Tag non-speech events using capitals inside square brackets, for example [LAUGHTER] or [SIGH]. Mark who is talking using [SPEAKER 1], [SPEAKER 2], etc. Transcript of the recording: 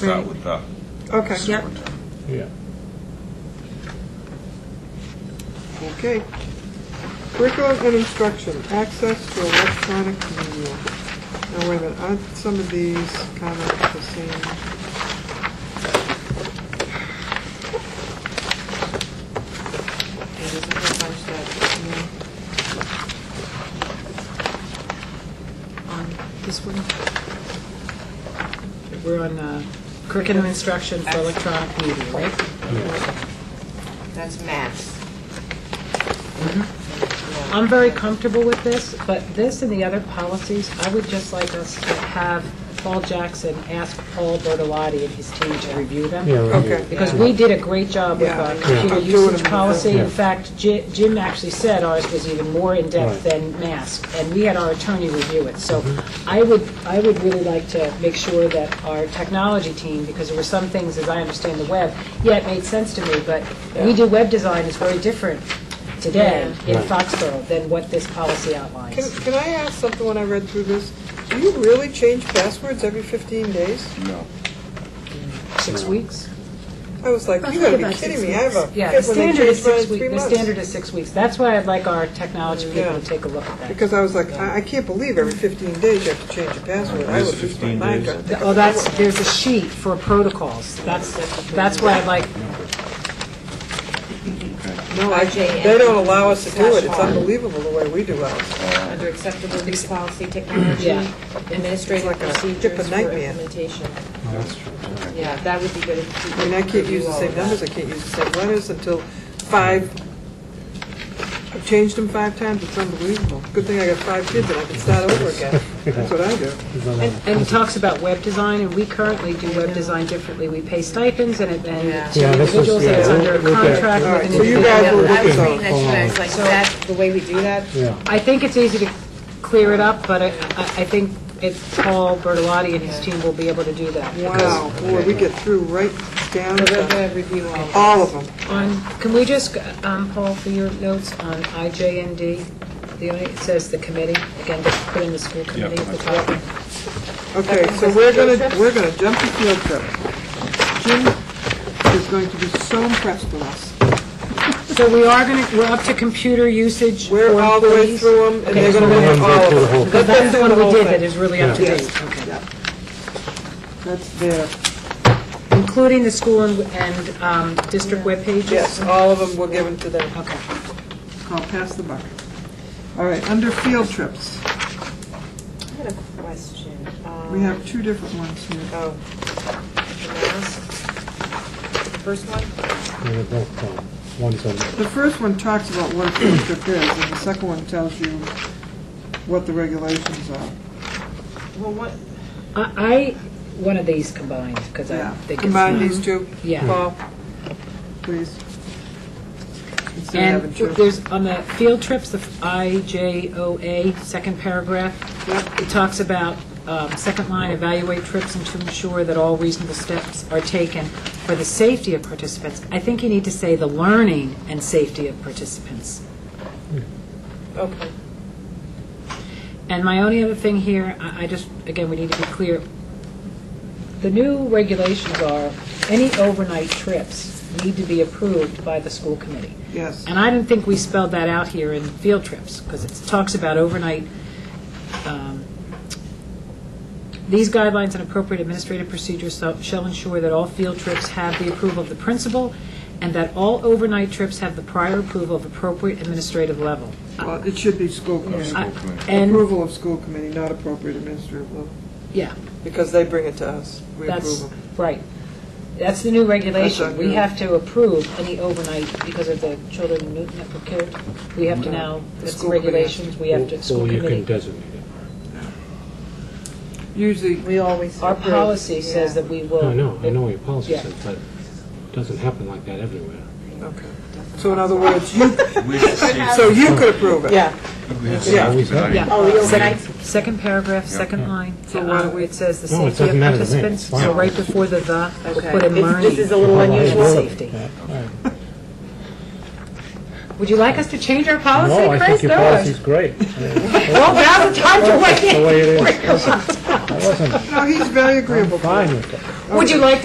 [SPEAKER 1] Start with the
[SPEAKER 2] Okay.
[SPEAKER 3] Yep.
[SPEAKER 4] Yeah.
[SPEAKER 2] Okay. Curriculum and instruction, access to electronic media. Now, wait a minute, aren't some of these kind of the same?
[SPEAKER 3] Yeah, there's a whole bunch that, um, on this one.
[SPEAKER 5] We're on uh, curriculum instruction for electronic media, right?
[SPEAKER 3] That's mass.
[SPEAKER 5] I'm very comfortable with this, but this and the other policies, I would just like us to have Paul Jackson ask Paul Bertolotti and his team to review them.
[SPEAKER 4] Yeah, right here.
[SPEAKER 2] Okay.
[SPEAKER 5] Because we did a great job with
[SPEAKER 2] Yeah.
[SPEAKER 5] our
[SPEAKER 2] Yeah.
[SPEAKER 5] computer
[SPEAKER 2] I'm doing
[SPEAKER 5] usage
[SPEAKER 2] it.
[SPEAKER 5] policy.
[SPEAKER 4] Yeah.
[SPEAKER 5] In fact, Ji- Jim actually said ours was even more in-depth
[SPEAKER 4] Right.
[SPEAKER 5] than mask, and we had our attorney review it. So
[SPEAKER 2] Mm-hmm.
[SPEAKER 5] I would, I would really like to make sure that our technology team, because there were some things, as I understand the web, yeah, it made sense to me, but we do web design is very different today in
[SPEAKER 4] Right.
[SPEAKER 5] Foxborough than what this policy outlines.
[SPEAKER 2] Can, can I ask something when I read through this? Do you really change passwords every 15 days?
[SPEAKER 1] No.
[SPEAKER 5] Six weeks?
[SPEAKER 2] I was like, you gotta be kidding me, I have a
[SPEAKER 5] Yeah, the
[SPEAKER 2] kid when they change
[SPEAKER 5] standard is
[SPEAKER 2] mine in
[SPEAKER 5] six
[SPEAKER 2] three
[SPEAKER 5] weeks, the standard
[SPEAKER 2] months.
[SPEAKER 5] is six weeks. That's why I'd like our technology people
[SPEAKER 2] Yeah.
[SPEAKER 5] to take a look at that.
[SPEAKER 2] Because I was like, I, I can't believe every 15 days you have to change your password. I
[SPEAKER 1] Is it
[SPEAKER 2] was just
[SPEAKER 1] 15
[SPEAKER 2] my mind.
[SPEAKER 1] days?
[SPEAKER 2] trying to think of
[SPEAKER 5] Oh, that's,
[SPEAKER 2] another
[SPEAKER 5] there's a sheet for protocols. That's, that's why I like,
[SPEAKER 2] one. No, I,
[SPEAKER 3] RJM.
[SPEAKER 2] they don't allow us to do it, it's
[SPEAKER 3] Slash R.
[SPEAKER 2] unbelievable the way we do ours.
[SPEAKER 3] Under acceptable use policy, technology,
[SPEAKER 5] Yeah.
[SPEAKER 2] It's
[SPEAKER 3] administrative
[SPEAKER 2] like a dip of
[SPEAKER 3] procedures for
[SPEAKER 2] nightmare.
[SPEAKER 3] implementation.
[SPEAKER 4] Oh, that's true.
[SPEAKER 3] Yeah, that would be good if you
[SPEAKER 2] I mean, I can't use the same numbers, I can't use the same letters until five, I've changed them five times, it's unbelievable. Good thing I got five kids and I can start over again. That's what I do.
[SPEAKER 4] There's another one.
[SPEAKER 5] and and it talks about web design, and we currently do web design differently. We pay stipends and it,
[SPEAKER 3] Yeah.
[SPEAKER 5] and to
[SPEAKER 4] Yeah, this is-
[SPEAKER 5] individuals, and it's
[SPEAKER 4] yeah,
[SPEAKER 5] under
[SPEAKER 4] we'll- we'll get-
[SPEAKER 5] contract
[SPEAKER 2] All right,
[SPEAKER 5] with
[SPEAKER 2] so
[SPEAKER 5] an
[SPEAKER 2] you guys will
[SPEAKER 5] individual.
[SPEAKER 3] I was
[SPEAKER 2] look
[SPEAKER 3] reading
[SPEAKER 2] at
[SPEAKER 3] that, tonight, I was like, that, the way we do that?
[SPEAKER 4] Yeah,
[SPEAKER 5] I think it's easy to clear it up, but I, I I think it's Paul Bertolotti and his team will be able to do that.
[SPEAKER 2] Wow, boy, we get through right down
[SPEAKER 3] We're going
[SPEAKER 2] to
[SPEAKER 3] to review all of
[SPEAKER 2] all of them.
[SPEAKER 5] On, can we just, um, Paul, for your notes on IJND, the only, it says the committee, again, just put in the school committee at the top.
[SPEAKER 2] Okay, so we're gonna, we're gonna jump to field trip. Jim is going to be so impressed with us.
[SPEAKER 5] So we are going to, we're up to computer usage.
[SPEAKER 2] We're
[SPEAKER 5] for
[SPEAKER 2] all the way
[SPEAKER 5] employees?
[SPEAKER 2] through them, and they're
[SPEAKER 5] Okay.
[SPEAKER 2] gonna look at
[SPEAKER 4] Go
[SPEAKER 2] all
[SPEAKER 4] through the whole
[SPEAKER 2] of them.
[SPEAKER 4] thing.
[SPEAKER 5] But that's the one we did that
[SPEAKER 2] Yes.
[SPEAKER 5] is really up to
[SPEAKER 2] Yeah.
[SPEAKER 5] date. Okay.
[SPEAKER 2] That's there.
[SPEAKER 5] Including the school and, and um, district web pages.
[SPEAKER 2] Yes, all of them were given to them.
[SPEAKER 5] Okay.
[SPEAKER 2] I'll pass the buck. All right, under field trips,
[SPEAKER 3] I had a question.
[SPEAKER 2] we
[SPEAKER 3] Um,
[SPEAKER 2] have two different ones here.
[SPEAKER 3] Oh. The mask? The First one?
[SPEAKER 4] they're both gone. One's on,
[SPEAKER 2] The first one talks about what a field trip is, and the second one tells you what the regulations are.
[SPEAKER 3] Well, what,
[SPEAKER 5] I, I- one of these combined, because I
[SPEAKER 2] Yeah,
[SPEAKER 5] think it's
[SPEAKER 2] combine
[SPEAKER 5] not.
[SPEAKER 2] these two,
[SPEAKER 5] Yeah.
[SPEAKER 2] Paul, please. Instead of having
[SPEAKER 5] And
[SPEAKER 2] two.
[SPEAKER 5] there's, on the field trips, the IJOA, second paragraph,
[SPEAKER 2] Yep.
[SPEAKER 5] it talks about, um, second line, evaluate trips and to ensure that all reasonable steps are taken for the safety of participants. I think you need to say the learning and safety of participants.
[SPEAKER 3] okay.
[SPEAKER 5] And my only other thing here, I I just, again, we need to be clear, the new regulations are, any overnight trips need to be approved by the school committee.
[SPEAKER 2] Yes.
[SPEAKER 5] And I didn't think we spelled that out here in field trips, because it talks about overnight, um, these guidelines and appropriate administrative procedures so- shall ensure that all field trips have the approval of the principal, and that all overnight trips have the prior approval of appropriate administrative level.
[SPEAKER 2] Well, it should be school committee.
[SPEAKER 5] I-
[SPEAKER 1] committee.
[SPEAKER 5] And,
[SPEAKER 2] Approval of school committee, not appropriate administrative level,
[SPEAKER 5] yeah.
[SPEAKER 2] because they bring it to us. We approve
[SPEAKER 5] That's,
[SPEAKER 2] them.
[SPEAKER 5] right. That's the new regulation.
[SPEAKER 2] That's
[SPEAKER 5] We
[SPEAKER 2] not
[SPEAKER 5] have to approve any overnight because of the children in Newton that were killed. We have to now,
[SPEAKER 2] The
[SPEAKER 5] that's the
[SPEAKER 2] school committee has to-
[SPEAKER 5] regulations, we have to, school
[SPEAKER 4] or Mm-hmm. you can
[SPEAKER 5] committee.
[SPEAKER 4] designate it.
[SPEAKER 2] Usually,
[SPEAKER 3] We always.
[SPEAKER 5] Our
[SPEAKER 3] approve,
[SPEAKER 5] policy
[SPEAKER 3] yeah.
[SPEAKER 5] says that we will.
[SPEAKER 4] I know, I know what your policy
[SPEAKER 5] Yeah.
[SPEAKER 4] says, but it doesn't happen like that everywhere.
[SPEAKER 2] okay. So in other words, you,
[SPEAKER 1] We should see,
[SPEAKER 2] so you could approve it.
[SPEAKER 3] Yeah.
[SPEAKER 1] we should see
[SPEAKER 2] Yeah.
[SPEAKER 1] if it's-
[SPEAKER 5] Yeah.
[SPEAKER 3] Oh, the overnight.
[SPEAKER 5] Second- Second paragraph, second line.
[SPEAKER 2] So why don't we-
[SPEAKER 5] Uh, It says the
[SPEAKER 4] No, it
[SPEAKER 5] safety of
[SPEAKER 4] doesn't matter to me. It's
[SPEAKER 5] participants. So
[SPEAKER 4] fine.
[SPEAKER 5] right before the "the," we'll
[SPEAKER 3] Okay.
[SPEAKER 5] put in
[SPEAKER 3] This-
[SPEAKER 5] learning.
[SPEAKER 3] This is a little
[SPEAKER 4] Well, I
[SPEAKER 3] unusual.
[SPEAKER 4] agree with
[SPEAKER 5] safety.
[SPEAKER 4] that. All right.
[SPEAKER 5] Would you like us to change our policy, Chris?
[SPEAKER 4] No, I think your
[SPEAKER 5] No.
[SPEAKER 4] policy's
[SPEAKER 5] [LAUGHS]
[SPEAKER 4] great. Yeah.
[SPEAKER 5] Oh, now's the time to
[SPEAKER 4] That's
[SPEAKER 5] weigh
[SPEAKER 4] the
[SPEAKER 5] in. [LAUGHS]
[SPEAKER 4] way it is. I wasn't,
[SPEAKER 2] No, he's very
[SPEAKER 4] I'm
[SPEAKER 2] agreeable. to it.
[SPEAKER 4] fine with it.
[SPEAKER 5] Would you like